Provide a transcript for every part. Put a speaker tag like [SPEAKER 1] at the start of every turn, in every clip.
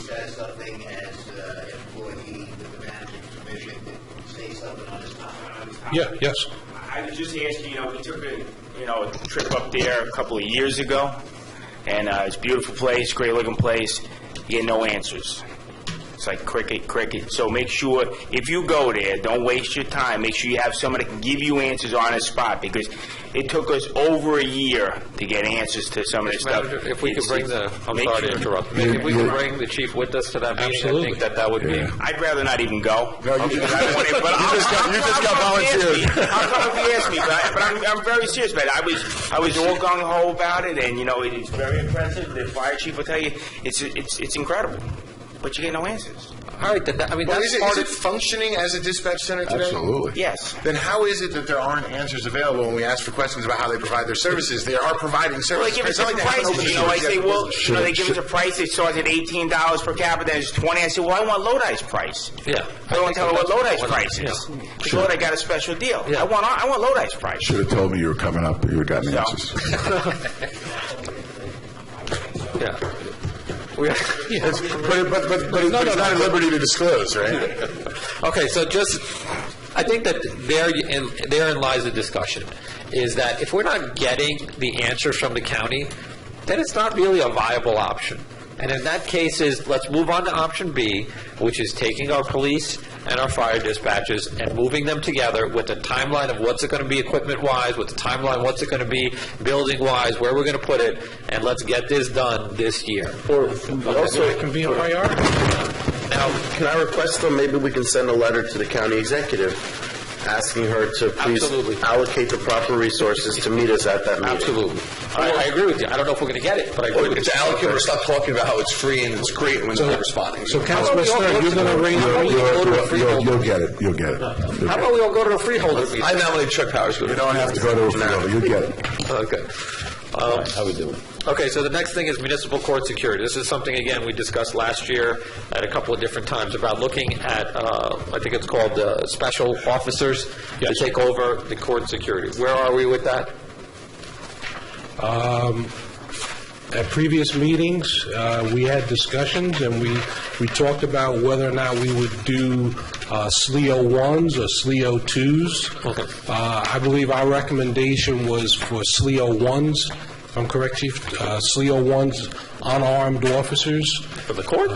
[SPEAKER 1] says something as uh, an employee with the managing commission, it states something on his contract.
[SPEAKER 2] Yeah, yes.
[SPEAKER 3] I was just asking, you know, we took a, you know, a trip up there a couple of years ago, and uh, it's a beautiful place, great-looking place, you get no answers. It's like cricket, cricket. So make sure, if you go there, don't waste your time. Make sure you have someone that can give you answers on the spot, because it took us over a year to get answers to some of this stuff.
[SPEAKER 4] Manager, if we could
[SPEAKER 3] It's-
[SPEAKER 4] bring the, I'm
[SPEAKER 3] make
[SPEAKER 4] sorry to
[SPEAKER 3] sure-
[SPEAKER 4] interrupt, if we could bring the chief with us to that meeting, I
[SPEAKER 2] Absolutely.
[SPEAKER 4] think that that would be,
[SPEAKER 3] I'd rather not even go.
[SPEAKER 5] No, you
[SPEAKER 3] Because
[SPEAKER 5] just-
[SPEAKER 3] I don't want it, but
[SPEAKER 5] you
[SPEAKER 3] I'll-
[SPEAKER 5] just got-
[SPEAKER 3] I'll-
[SPEAKER 5] you just
[SPEAKER 3] I'll
[SPEAKER 5] got
[SPEAKER 3] come if you ask me.
[SPEAKER 5] volunteered.
[SPEAKER 3] I'll come if you ask me, but, I- but I'm, I'm very serious about it. I was, I was all gung ho about it, and, you know, it is very impressive. The fire chief will tell you, it's, it's, it's incredible. But you get no answers.
[SPEAKER 4] all right, then, that- I mean,
[SPEAKER 5] Well, is
[SPEAKER 4] that's
[SPEAKER 5] it,
[SPEAKER 4] part
[SPEAKER 5] is it
[SPEAKER 4] of,
[SPEAKER 5] functioning as a dispatch center today?
[SPEAKER 6] Absolutely.
[SPEAKER 3] Yes.
[SPEAKER 5] Then how is it that there aren't answers available when we ask for questions about how they provide their services? They are providing
[SPEAKER 3] Well, they
[SPEAKER 5] services.
[SPEAKER 3] give us
[SPEAKER 5] It's not
[SPEAKER 3] different
[SPEAKER 5] like they haven't
[SPEAKER 3] prices, you know, I
[SPEAKER 5] opened
[SPEAKER 3] say,
[SPEAKER 5] the
[SPEAKER 3] well,
[SPEAKER 5] business
[SPEAKER 3] you know, they give us a price, it starts at eighteen dollars per capita, then it's twenty, I say, well, I want Lodi's price.
[SPEAKER 4] yeah.
[SPEAKER 3] I don't tell them what Lodi's
[SPEAKER 4] Well,
[SPEAKER 3] price
[SPEAKER 4] yeah.
[SPEAKER 3] is. Because Lodi got a special deal.
[SPEAKER 4] Yeah.
[SPEAKER 3] I want, I want Lodi's price.
[SPEAKER 6] Should have told me you were coming up, you would have gotten
[SPEAKER 3] No.
[SPEAKER 6] answers.
[SPEAKER 4] Yeah. We-
[SPEAKER 5] It's- But, but,
[SPEAKER 4] No,
[SPEAKER 5] but, but but it's
[SPEAKER 4] no,
[SPEAKER 5] not
[SPEAKER 4] no.
[SPEAKER 5] at liberty to disclose, right?
[SPEAKER 4] Okay, so just, I think that there, and therein lies the discussion, is that if we're not getting the answers from the county, then it's not really a viable option. And in that case is, let's move on to option B, which is taking our police and our fire dispatches and moving them together with a timeline of what's it going to be equipment-wise, with the timeline, what's it going to be building-wise, where we're going to put it, and let's get this done this year.
[SPEAKER 7] Also, it can be a priority. Now, can I request, though, maybe we can send a letter to the county executive asking her to please
[SPEAKER 4] Absolutely.
[SPEAKER 7] allocate the proper resources to meet us at that meeting?
[SPEAKER 4] Absolutely. I I agree with you. I don't know if we're going to get it, but I agree with you.
[SPEAKER 5] To allocate or stop talking about how it's free and it's great when it's not responding.
[SPEAKER 2] So Councilman Stern, you're going to ring
[SPEAKER 4] How about
[SPEAKER 2] the...
[SPEAKER 4] we go to
[SPEAKER 6] You'll-
[SPEAKER 4] a
[SPEAKER 6] You'll
[SPEAKER 4] freeholder?
[SPEAKER 6] you'll get it, you'll get it. You'll
[SPEAKER 4] How
[SPEAKER 6] get it.
[SPEAKER 4] about we all go to a freeholder meeting?
[SPEAKER 5] I nominate Chuck Powers.
[SPEAKER 6] You don't have to go to a field, you'll get it.
[SPEAKER 4] Okay. How we doing? Okay, so the next thing is municipal court security. This is something, again, we discussed last year at a couple of different times about looking at, uh, I think it's called uh, special officers to take over the court security. Where are we with that?
[SPEAKER 2] At previous meetings, uh, we had discussions, and we, we talked about whether or not we would do uh, SLEO 1s or SLEO 2s. Uh, I believe our recommendation was for SLEO 1s, if I'm correct, Chief, Uh, SLEO 1s, unarmed officers.
[SPEAKER 4] For the court?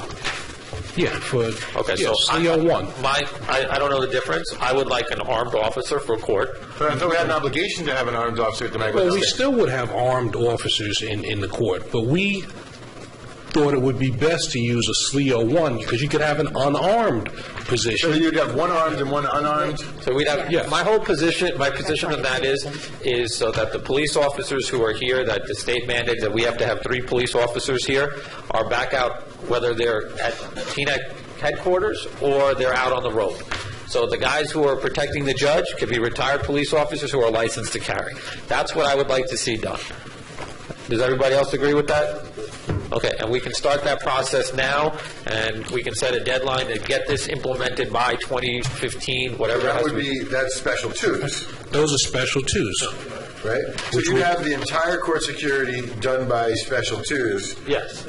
[SPEAKER 2] Yeah, for,
[SPEAKER 4] Okay,
[SPEAKER 2] yeah, E
[SPEAKER 4] so... I-
[SPEAKER 2] SLEO 1.
[SPEAKER 4] My, I I don't know the difference. I would like an armed officer for court.
[SPEAKER 5] I thought we had an obligation to have an armed officer at the
[SPEAKER 2] Well, we still would have armed officers in, in the court, but we thought it would be best to use a E SLEO 1, because you could have an unarmed position.
[SPEAKER 5] you'd have one armed and one unarmed?
[SPEAKER 4] So we'd have,
[SPEAKER 2] Yes.
[SPEAKER 4] my whole position, my position on that is, is so that the police officers who are here, that the state mandates that we have to have three police officers here, are back out, whether they're at TNAC headquarters or they're out on the road. So the guys who are protecting the judge could be retired police officers who are licensed to carry. That's what I would like to see done. Does everybody else agree with that? Okay, and we can start that process now, and we can set a deadline to get this implemented by 2015, whatever it
[SPEAKER 5] That
[SPEAKER 4] has to
[SPEAKER 5] would
[SPEAKER 4] be.
[SPEAKER 5] be, that's special twos,
[SPEAKER 2] Those are special twos.
[SPEAKER 5] right? So you have the entire court security done by special twos,
[SPEAKER 4] Yes.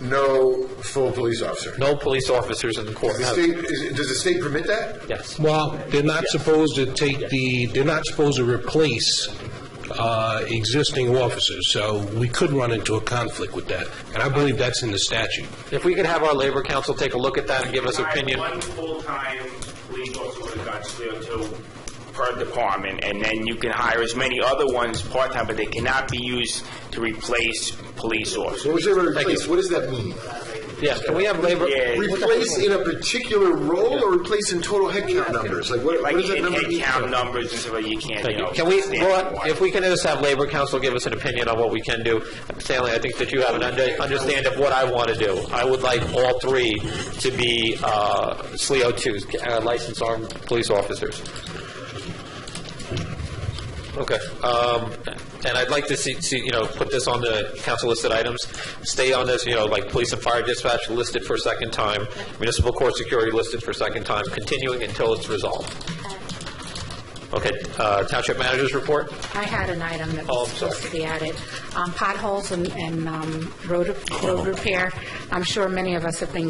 [SPEAKER 5] no full police officer.
[SPEAKER 4] No police officers in the court.
[SPEAKER 5] The state, is- does the state permit that?
[SPEAKER 4] Yes.
[SPEAKER 2] Well, they're not supposed to take the, they're not supposed to replace uh, existing officers, so we could run into a conflict with that, and I believe that's in the statute.
[SPEAKER 4] If we could have our labor council take a look at that and give us opinion.
[SPEAKER 3] One full-time police officer with a gun, still two per department, and then you can hire as many other ones part-time, but they cannot be used to replace police officers.
[SPEAKER 5] What was it, replace, what does that mean?
[SPEAKER 4] Yeah, can we have labor?
[SPEAKER 3] Yeah.
[SPEAKER 5] Replace in a particular role or replace in total headcount numbers? Like, what
[SPEAKER 3] Like,
[SPEAKER 5] what does that
[SPEAKER 3] in
[SPEAKER 5] number
[SPEAKER 3] head
[SPEAKER 5] mean?
[SPEAKER 3] count numbers and stuff, like you can't, you
[SPEAKER 4] Thank you.
[SPEAKER 3] know.
[SPEAKER 4] Can we,
[SPEAKER 3] stand
[SPEAKER 4] well,
[SPEAKER 3] for it.
[SPEAKER 4] if we can just have labor council give us an opinion on what we can do. Stanley, I think that you have an under- understand of what I want to do. I would like all three to be uh, SLEO 2s, uh, licensed armed police officers. Okay. um, And I'd like to see, see, you know, put this on the council listed items, stay on this, you know, like police and fire dispatch listed for a second time, municipal court security listed for a second time, continuing until it's resolved. Okay, uh, township managers report?
[SPEAKER 8] I had an item that
[SPEAKER 4] Oh, I'm
[SPEAKER 8] was supposed to be added. Um, Potholes and- and um, road road repair. I'm sure many of us have been